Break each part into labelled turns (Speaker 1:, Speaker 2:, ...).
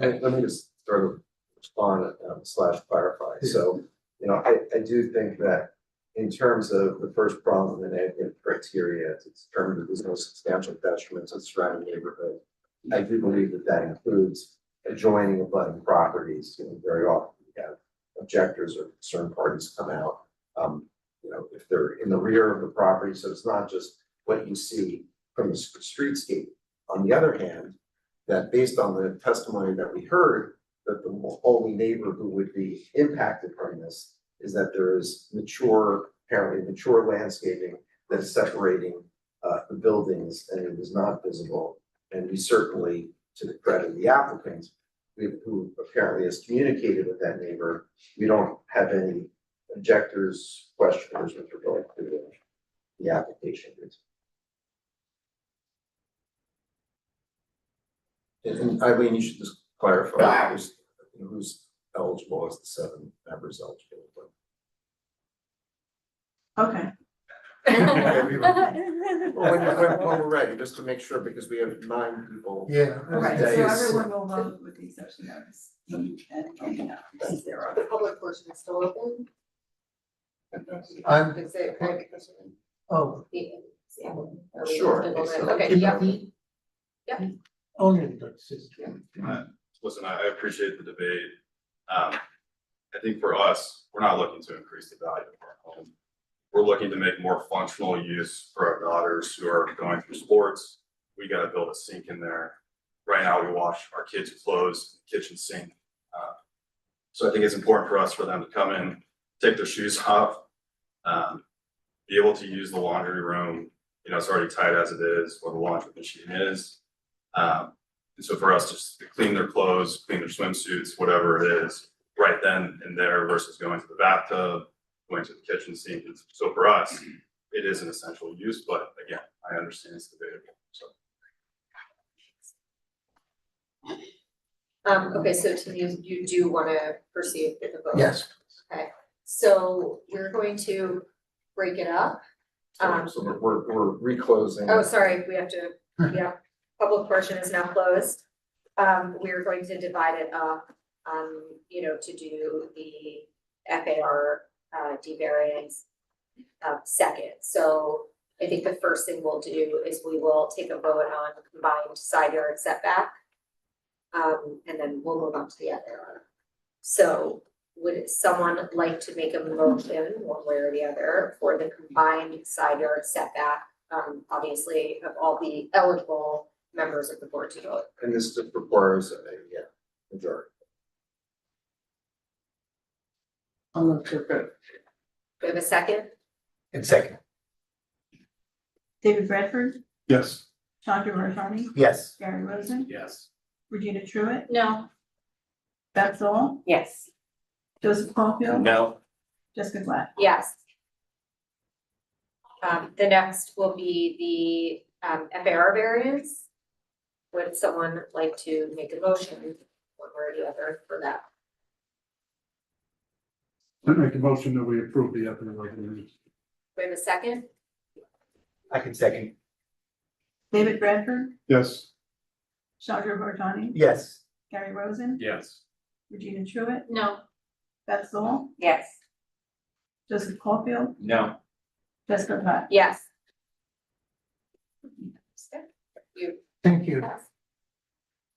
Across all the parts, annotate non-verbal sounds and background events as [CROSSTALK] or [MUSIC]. Speaker 1: And let me just sort of respond um, slash clarify, so, you know, I, I do think that in terms of the first problem, the negative criteria, it's determined that there's no substantial detriment to the surrounding neighborhood. I do believe that that includes adjoining abutting properties, you know, very often you have objectors or concerned parties come out. Um, you know, if they're in the rear of the property, so it's not just what you see from the s- streetscape. On the other hand, that based on the testimony that we heard, that the only neighbor who would be impacted from this is that there is mature, apparently mature landscaping that is separating uh the buildings and it is not visible. And we certainly, to the credit of the applicant, we- who apparently has communicated with that neighbor, we don't have any objectors, questioners with regard to the- the application. And- And Eileen, you should just clarify who's, who's eligible as the seven members eligible. but-
Speaker 2: Okay.
Speaker 1: [LAUGHS] Well, when, when, when we're ready, just to make sure, because we have nine people.
Speaker 3: Yeah.
Speaker 2: All right, so
Speaker 1: That is-
Speaker 2: everyone will vote with the exception of Steve and Anna, since they're on.
Speaker 4: The public portion is still open.
Speaker 3: I'm,
Speaker 4: Is it, like,
Speaker 3: oh,
Speaker 4: the- yeah, are we
Speaker 1: Sure.
Speaker 4: still open?
Speaker 1: so
Speaker 4: Okay,
Speaker 1: keep
Speaker 4: yeah.
Speaker 1: going.
Speaker 3: only in good system.
Speaker 5: listen, I I appreciate the debate. Um, I think for us, we're not looking to increase the value of our home. We're looking to make more functional use for our daughters who are going through sports. We gotta build a sink in there. Right now, we wash our kids' clothes, in the kitchen sink. Uh, So I think it's important for us for them to come in, take their shoes [LAUGHS] off, um, be able to use the laundry room. You know, it's already tight as it is, or the laundry machine is. Um, and so for us, just to clean their clothes, clean their swimsuits, whatever it is, right then and there versus going to the bathtub, going to the kitchen sink. And So for us, it is an essential use, but again, I understand it's debatable, so.
Speaker 4: Um, okay, so Tim, you, you do wanna proceed with the vote?
Speaker 3: Yes,
Speaker 4: So we're going to break it up. Um,
Speaker 1: So- So we're, we're- we're reclosing.
Speaker 4: Oh, sorry, we have to, yeah, public portion is now closed. Um, we're going to divide it up, um, you know, to do the FAR, uh, D variance. Uh, second, so I think the first thing we'll do is we will take a vote on combined side yard setback. Um, and then we'll move on to the other. So would someone like to make a motion one way or the other for the combined side yard setback um, obviously, of all the eligible members of the board to vote.
Speaker 1: And this just requires, a yeah, majority.
Speaker 2: I'll move to approve.
Speaker 4: Do we have a second?
Speaker 3: and second,
Speaker 2: David Bradford,
Speaker 5: Yes.
Speaker 2: Chandra Rajani,
Speaker 3: yes.
Speaker 2: Gary Rosen,
Speaker 5: Yes.
Speaker 2: Regina Truitt,
Speaker 4: No.
Speaker 2: Beth Zoll,
Speaker 4: Yes.
Speaker 2: Joseph Caulfield,
Speaker 3: No.
Speaker 2: Jessica Glad.
Speaker 4: Yes. Um, the next will be the, um, FAR variance. Would someone like to make a motion, one way or the other, for that?
Speaker 6: I make a motion that we approve the ethics regulations.
Speaker 4: Do we have a second?
Speaker 3: I can second,
Speaker 2: David Bradford,
Speaker 6: Yes.
Speaker 2: Chandra Rajani,
Speaker 3: yes.
Speaker 2: Gary Rosen,
Speaker 5: Yes.
Speaker 2: Regina Truitt,
Speaker 4: No.
Speaker 2: Beth Zoll,
Speaker 4: Yes.
Speaker 2: Joseph Caulfield,
Speaker 5: No.
Speaker 2: Jessica Glad.
Speaker 4: Yes. You,
Speaker 3: Thank you.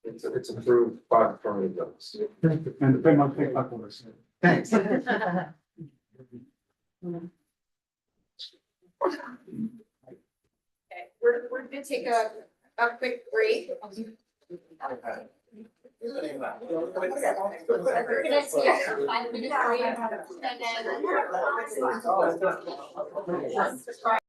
Speaker 1: It's, it's approved by the permanent votes.
Speaker 6: And depend on pick up on this.
Speaker 3: Thanks.
Speaker 4: Okay, we're, we're gonna take a, a quick break. We're gonna take a five minute break, and then-